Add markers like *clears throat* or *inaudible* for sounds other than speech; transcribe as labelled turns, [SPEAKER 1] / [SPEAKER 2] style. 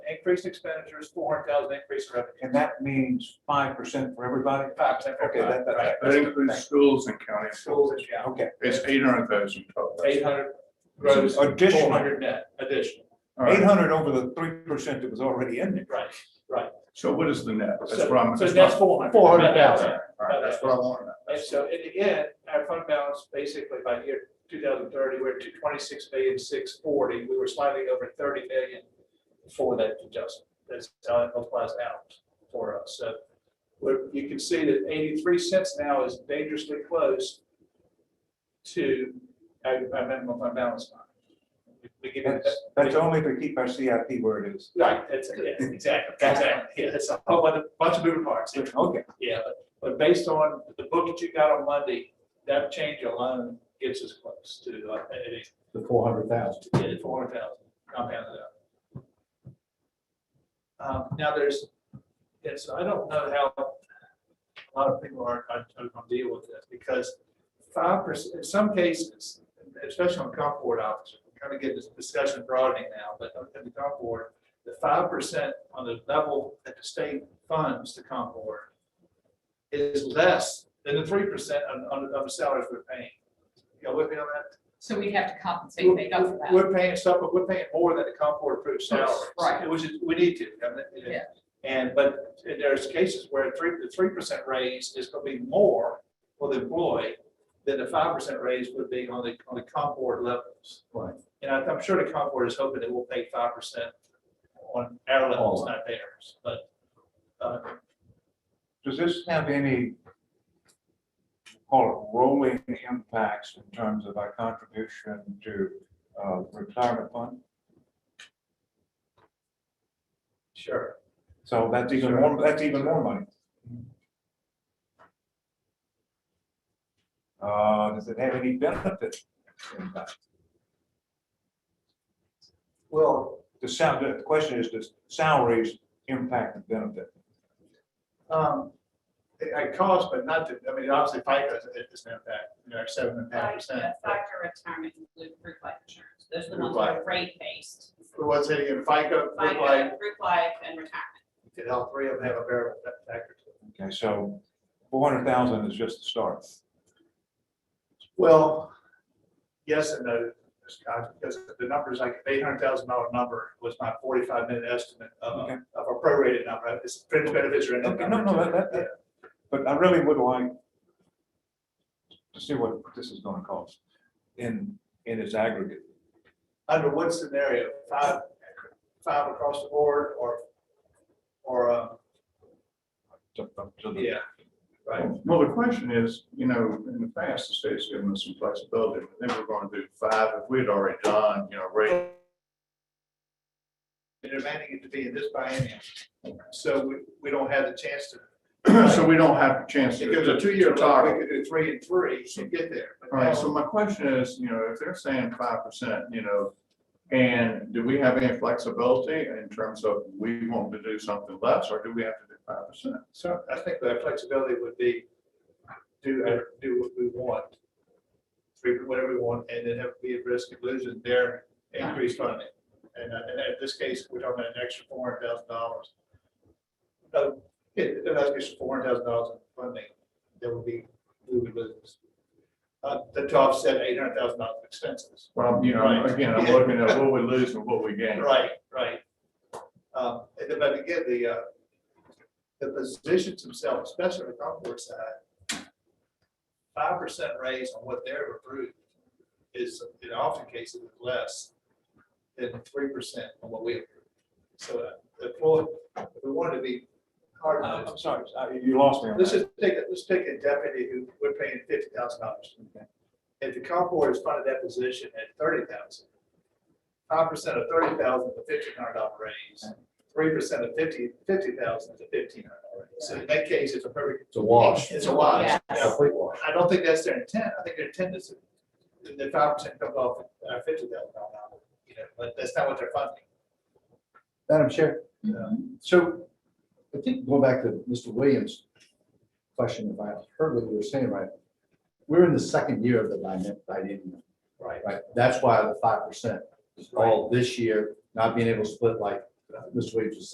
[SPEAKER 1] increased expenditures, four hundred thousand increase in revenue.
[SPEAKER 2] And that means five percent for everybody?
[SPEAKER 1] Five percent.
[SPEAKER 2] Okay,
[SPEAKER 1] Right.
[SPEAKER 2] that, that,
[SPEAKER 3] That includes schools and counties.
[SPEAKER 1] Schools, yeah,
[SPEAKER 2] okay.
[SPEAKER 3] It's eight hundred thousand total.
[SPEAKER 1] eight hundred gross,
[SPEAKER 2] Additional.
[SPEAKER 1] four hundred net additional,
[SPEAKER 3] All
[SPEAKER 2] Eight
[SPEAKER 3] right,
[SPEAKER 2] hundred over the three percent that was already in there.
[SPEAKER 1] right?
[SPEAKER 3] so what is the net? That's
[SPEAKER 1] So-
[SPEAKER 3] what I'm.
[SPEAKER 1] So that's four hundred.
[SPEAKER 3] All right, that's what I want.
[SPEAKER 1] And so, and again, our fund balance, basically by year two thousand thirty, we're at two twenty-six million, six forty, we were slightly over thirty million for that adjustment, that's how it applies out for us, so. Where you can see that eighty-three cents now is dangerously close to our, our minimum fund balance line. We give it-
[SPEAKER 2] That's, that's only to keep our CIP where it is.
[SPEAKER 1] Right, that's, yeah, exactly, exactly, yeah, it's a whole other bunch of moving parts,
[SPEAKER 2] Okay,
[SPEAKER 1] yeah, but, but based on the book that you got on Monday, that change alone gets us close to, uh, it is,
[SPEAKER 4] the four hundred thousand.
[SPEAKER 1] it's four hundred thousand, compounded up. Um, now there's, yes, I don't know how a lot of people are, are going to deal with this, because five percent, in some cases, especially on comp board officers, we're kind of getting this discussion broadening now, but on the comp board, the five percent on the level that the state funds the comp board is less than the three percent on, on, on the salaries we're paying. Y'all with me on that?
[SPEAKER 5] So we have to compensate, make up for that.
[SPEAKER 1] We're paying stuff, but we're paying more than the comp board approved salaries.
[SPEAKER 5] Right.
[SPEAKER 1] Which is, we need to. I mean, it-
[SPEAKER 5] Yeah.
[SPEAKER 1] And, but there's cases where three, the three percent raise is gonna be more for the employee than the five percent raise would be on the, on the comp board levels.
[SPEAKER 4] Right.
[SPEAKER 1] And I- I'm sure the comp board is hoping that we'll pay five percent on our levels, not theirs, but, uh,
[SPEAKER 2] does this have any, call it rolling impacts in terms of our contribution to uh, retirement fund?
[SPEAKER 1] sure.
[SPEAKER 2] So that's even more, that's even more money. Uh, does it have any benefit? impact?
[SPEAKER 1] Well.
[SPEAKER 2] The sound, the question is, does salaries impact the benefit?
[SPEAKER 1] Um, it, it costs, but not to, I mean, obviously FICA is, is an impact, you know, seven and a half percent.
[SPEAKER 5] Factor retirement include group life insurance. Those are the ones
[SPEAKER 1] Group
[SPEAKER 5] that are rate based.
[SPEAKER 1] But what's it again, FICA, look like,
[SPEAKER 5] FICA, group life and retirement.
[SPEAKER 1] did all three of them have a variable fa- factor to it?
[SPEAKER 2] Okay, so four hundred thousand is just the start.
[SPEAKER 1] Well, yes and no, Scott, because the numbers, like eight hundred thousand dollar number was my forty-five minute estimate of,
[SPEAKER 2] Okay.
[SPEAKER 1] a- of a prorated number, it's fringe benefits are in. that
[SPEAKER 2] Okay, no,
[SPEAKER 1] number
[SPEAKER 2] no,
[SPEAKER 1] too.
[SPEAKER 2] that, that,
[SPEAKER 1] Yeah.
[SPEAKER 2] that, but I really would like to see what this is gonna cost in, in its aggregate.
[SPEAKER 1] Under what scenario, five, five across the board or, or, um,
[SPEAKER 2] to- to the-
[SPEAKER 1] yeah, right?
[SPEAKER 3] Well, the question is, you know, in the past, the state's given us some flexibility, but then we're going to do five if we had already done, you know,
[SPEAKER 4] *clears throat*
[SPEAKER 3] rate.
[SPEAKER 1] They're demanding it to be in this biennium, so we, we don't have the chance to.
[SPEAKER 3] So we don't have a chance to.
[SPEAKER 1] It goes a two-year
[SPEAKER 3] to
[SPEAKER 1] look,
[SPEAKER 3] target.
[SPEAKER 1] we could do three and three to get there. but
[SPEAKER 3] All right, so
[SPEAKER 1] now-
[SPEAKER 3] my question is, you know, if they're saying five percent, you know, and do we have any flexibility in terms of we want to do something less, or do we have to do five percent?
[SPEAKER 1] So I think that flexibility would be do, uh, do what we want, three, whatever we want, and then have be at risk of losing their increased funding. And, uh, and in this case, we're talking about an extra four hundred thousand dollars. Uh, it, an extra four hundred thousand dollars in funding that would be, we would lose. Uh, to to offset eight hundred thousand dollars expenses.
[SPEAKER 3] Well, you know,
[SPEAKER 1] Right.
[SPEAKER 3] again, I'm looking at what we lose and what we gain.
[SPEAKER 1] Right, right. Um, and then, but again, the, uh, the positions themselves, especially on the comp board side, five percent raise on what they're approved is, in often cases, less than three percent on what we approve. So uh, the floor, if we wanted to be hard.
[SPEAKER 2] Uh, I'm sorry, I- you lost me on
[SPEAKER 1] Let's
[SPEAKER 2] that.
[SPEAKER 1] just take, a- let's take a deputy who we're paying fifty thousand dollars. If the comp board is funded that position at thirty thousand, five percent of thirty thousand is a fifteen hundred dollar raise, three percent of fifty, fifty thousand is a fifteen hundred dollar raise. So in that case, it's a perfect,
[SPEAKER 4] It's a wash.
[SPEAKER 1] it's a wash.
[SPEAKER 5] Yes.
[SPEAKER 1] Yeah.
[SPEAKER 4] Complete wash.
[SPEAKER 1] I don't think that's their intent. I think their intent is that the five percent comes off our fifty thousand dollar, you know, but that's not what they're funding.
[SPEAKER 4] Madam Chair,
[SPEAKER 1] Yeah.
[SPEAKER 4] so I think going back to Mr. Williams' question, if I heard what you were saying right, we're in the second year of the biennium- biennium,
[SPEAKER 1] Right.
[SPEAKER 4] right? That's why the five percent is all this year, not being able to split like
[SPEAKER 3] Mr. uh, Williams was saying